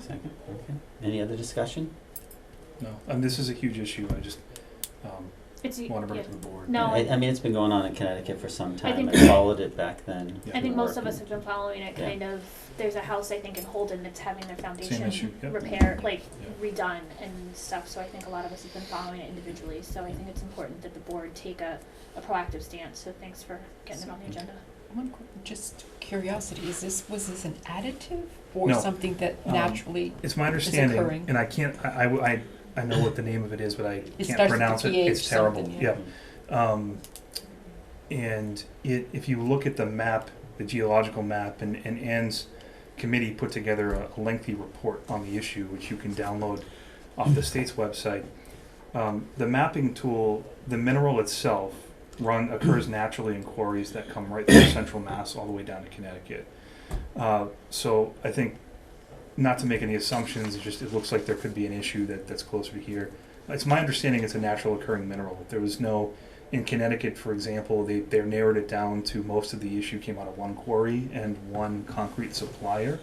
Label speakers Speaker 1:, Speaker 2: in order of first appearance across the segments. Speaker 1: Second, okay. Any other discussion?
Speaker 2: No, and this is a huge issue. I just um,
Speaker 3: It's,
Speaker 2: want to bring it
Speaker 3: yeah.
Speaker 2: to the board.
Speaker 3: No,
Speaker 1: I, I mean, it's been going on in Connecticut for some time.
Speaker 3: think-
Speaker 1: I followed it back then.
Speaker 2: Yeah.
Speaker 3: I think
Speaker 1: We were
Speaker 3: most of us
Speaker 1: working.
Speaker 3: have been following it,
Speaker 1: Yeah.
Speaker 3: kind of, there's a house, I think, in Holden that's having their
Speaker 2: Same
Speaker 3: foundation
Speaker 2: issue. Yep.
Speaker 3: repair, like
Speaker 2: Yeah.
Speaker 3: redone and stuff, so I think a lot of us have been following it individually, so I think it's important that the board take a, a proactive stance, so thanks for getting it on the agenda.
Speaker 4: One, qu- just curiosity, is this, was this an additive or
Speaker 2: No.
Speaker 4: something that
Speaker 2: Um,
Speaker 4: naturally,
Speaker 2: It's my understanding,
Speaker 4: occurring.
Speaker 2: and I can't. I, I I I know what the name of it is, but I
Speaker 4: It
Speaker 2: can't
Speaker 4: starts with a
Speaker 2: pronounce it.
Speaker 4: PH
Speaker 2: It's terrible.
Speaker 4: something,
Speaker 2: Yeah. Um, and it, if you look at the map, the geological map, and, and Anne's committee put together a a lengthy report on the issue, which you can download off the state's website. Um, the mapping tool, the mineral itself, run occurs naturally in quarries that come right through central Mass all the way down to Connecticut. Uh, so I think, not to make any assumptions, it just it looks like there could be an issue that, that's closer to here. It's my understanding it's a natural occurring mineral. There was no in Connecticut, for example, they, they narrowed it down to most of the issue came out of one quarry and one concrete supplier.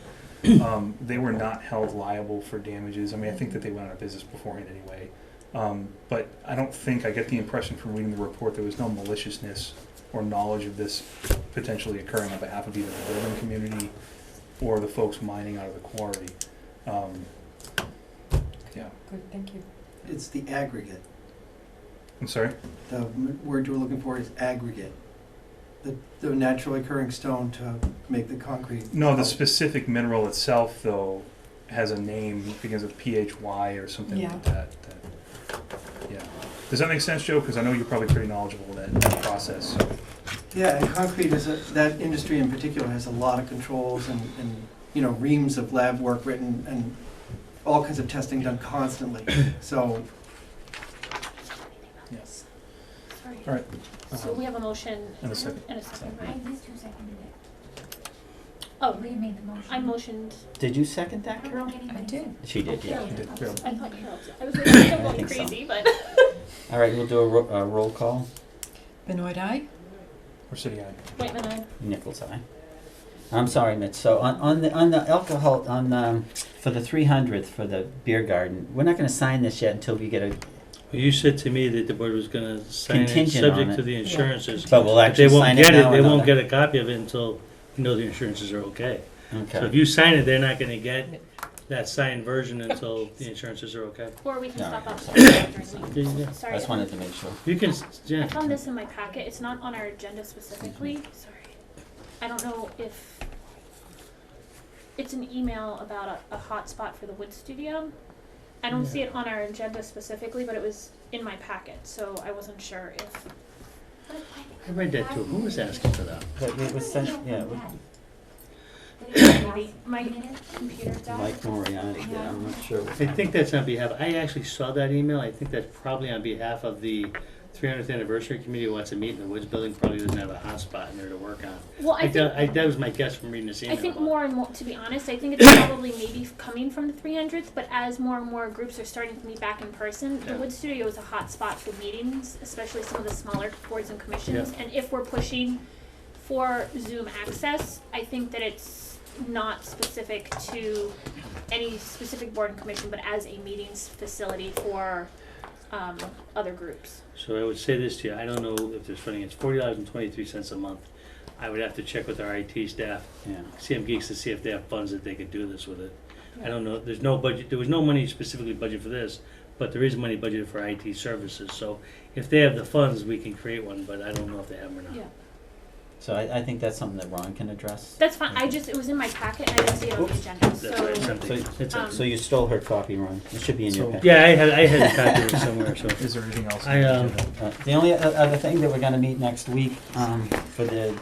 Speaker 2: Um, they were not held liable for damages. I mean, I think that they went out of business beforehand anyway. Um, but I don't think, I get the impression from reading the report, there was no maliciousness or knowledge of this potentially occurring on behalf of either the building community or the folks mining out of the quarry. Um, yeah,
Speaker 4: good, thank you.
Speaker 5: It's the aggregate.
Speaker 2: I'm sorry?
Speaker 5: The m- word you're looking for is aggregate. The, the naturally occurring stone to make the concrete.
Speaker 2: No, the specific mineral itself, though, has a name, begins with PHY or something
Speaker 4: Yeah.
Speaker 2: like that. that yeah. Does that make sense, Joe? Because I know you're probably pretty knowledgeable in that, that process. So.
Speaker 5: Yeah, and concrete is, a- that industry in particular has a lot of controls and, and, you know, reams of lab work written and all kinds of testing done constantly. So
Speaker 2: Yes.
Speaker 3: Sorry.
Speaker 2: All right.
Speaker 3: So
Speaker 2: Um,
Speaker 3: we have a motion.
Speaker 2: and a second.
Speaker 3: And a second,
Speaker 6: I
Speaker 3: right?
Speaker 6: used to second it.
Speaker 3: Oh,
Speaker 6: We made the motion.
Speaker 3: I motioned,
Speaker 1: Did you second that, Carol?
Speaker 6: I
Speaker 4: I did.
Speaker 1: She did, yeah.
Speaker 2: You did.
Speaker 6: Okay.
Speaker 2: Yeah.
Speaker 3: I thought Carol, I was like, I'm
Speaker 1: I
Speaker 3: going
Speaker 1: think so.
Speaker 3: crazy, but.
Speaker 1: All right, we'll do a, ro- a roll call.
Speaker 4: Benoit eye?
Speaker 2: Or city eye.
Speaker 3: Wait a minute,
Speaker 1: Nichols, aye. I'm sorry, Mitch. So on, on the on the alcohol on the, for the 300th for the beer garden, we're not going to sign this yet until we get a.
Speaker 7: You said to me that the board was gonna sign it,
Speaker 1: Contingent on
Speaker 7: subject
Speaker 1: it.
Speaker 7: to the insurances.
Speaker 1: But we'll
Speaker 7: If they
Speaker 1: actually
Speaker 7: won't
Speaker 1: sign
Speaker 7: get
Speaker 1: it now.
Speaker 7: it, they
Speaker 1: or
Speaker 7: won't
Speaker 1: not.
Speaker 7: get a copy of it until you know the insurances are okay. So if
Speaker 1: Okay.
Speaker 7: you sign it, they're not gonna get that signed version until the insurances are okay.
Speaker 3: or we can
Speaker 1: No,
Speaker 3: stop
Speaker 1: no,
Speaker 3: off.
Speaker 1: sorry.
Speaker 3: Sorry,
Speaker 7: Yeah,
Speaker 1: I
Speaker 3: Sorry.
Speaker 1: just wanted to make sure.
Speaker 7: You can, s-
Speaker 3: I
Speaker 7: yeah,
Speaker 3: found this in my packet, it's not on our agenda specifically, sorry. I don't know if, it's an email about a, a hotspot for the wood studio. I don't see it on our agenda specifically, but it was in my packet, so I wasn't sure if,
Speaker 6: But
Speaker 7: I read that too. Who was asking for that?
Speaker 1: But it was sent, yeah, it was
Speaker 6: I.
Speaker 3: my computer died.
Speaker 1: Mike Moriarty. did. I'm not sure. what
Speaker 7: I
Speaker 1: time.
Speaker 7: think that's on behalf, I actually saw that email. I think that's probably on behalf of the three hundredth anniversary committee who wants to meet in the Woods Building, probably doesn't have a hotspot in there to work on.
Speaker 3: Well, I
Speaker 7: I,
Speaker 3: think,
Speaker 7: doubt- I, that was my guess from reading this email.
Speaker 3: I think
Speaker 7: about it.
Speaker 3: more and more, to be honest, I think it's probably maybe coming from the 300th, but as more and more groups are starting to meet back in person, the
Speaker 7: Yeah.
Speaker 3: Wood Studio is a hot spot for meetings, especially some of the smaller boards and commissions. And if we're pushing for Zoom access, I think that it's not specific to any specific board and commission, but as a meetings facility for um, other groups.
Speaker 7: So I would say this to you, I don't know if there's funding, it's forty dollars and twenty-three cents a month. I would have to check with our IT staff,
Speaker 1: Yeah.
Speaker 7: CM Geeks, to see if they have funds that they could do this with it. I don't know, there's no budget, there was no money specifically budgeted for this, but there is money budgeted for IT services, so if they have the funds, we can create one, but I don't know if they have them or not.
Speaker 3: Yeah.
Speaker 1: So I, I think that's something that Ron can address.
Speaker 3: That's fine. I just, it was in my packet and I didn't see it on the
Speaker 1: Oops.
Speaker 3: agenda,
Speaker 7: That's why I
Speaker 3: so.
Speaker 7: sent it. It's a-
Speaker 3: um,
Speaker 1: So you stole her copy, Ron. It should be in your
Speaker 2: So-
Speaker 1: packet.
Speaker 7: Yeah, I had, I had a copy of it somewhere, so.
Speaker 2: Is there anything else?
Speaker 7: I, um,
Speaker 1: Uh, The only o- other thing that we're gonna meet next week, um, for the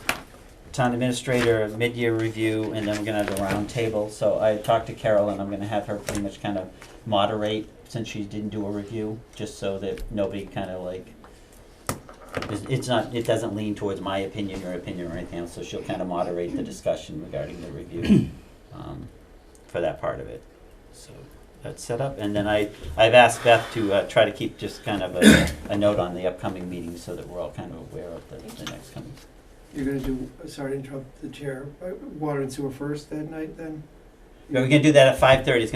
Speaker 1: town administrator mid-year review, and then we're gonna have a roundtable. So I talked to Carol, and I'm gonna have her pretty much kind of moderate, since she didn't do a review, just so that nobody kind of like, it's, it's not, it doesn't lean towards my opinion or opinion or anything else, so she'll kind of moderate the discussion regarding the review, um, for that part of it. So that's set up, and then I, I've asked Beth to, uh, try to keep just kind of a, a note on the upcoming meetings so that we're all kind of aware of the, the next coming.
Speaker 5: you're gonna do, sorry to interrupt the chair, uh, water and sewer first that night then?
Speaker 1: We're gonna do that at five thirty, it's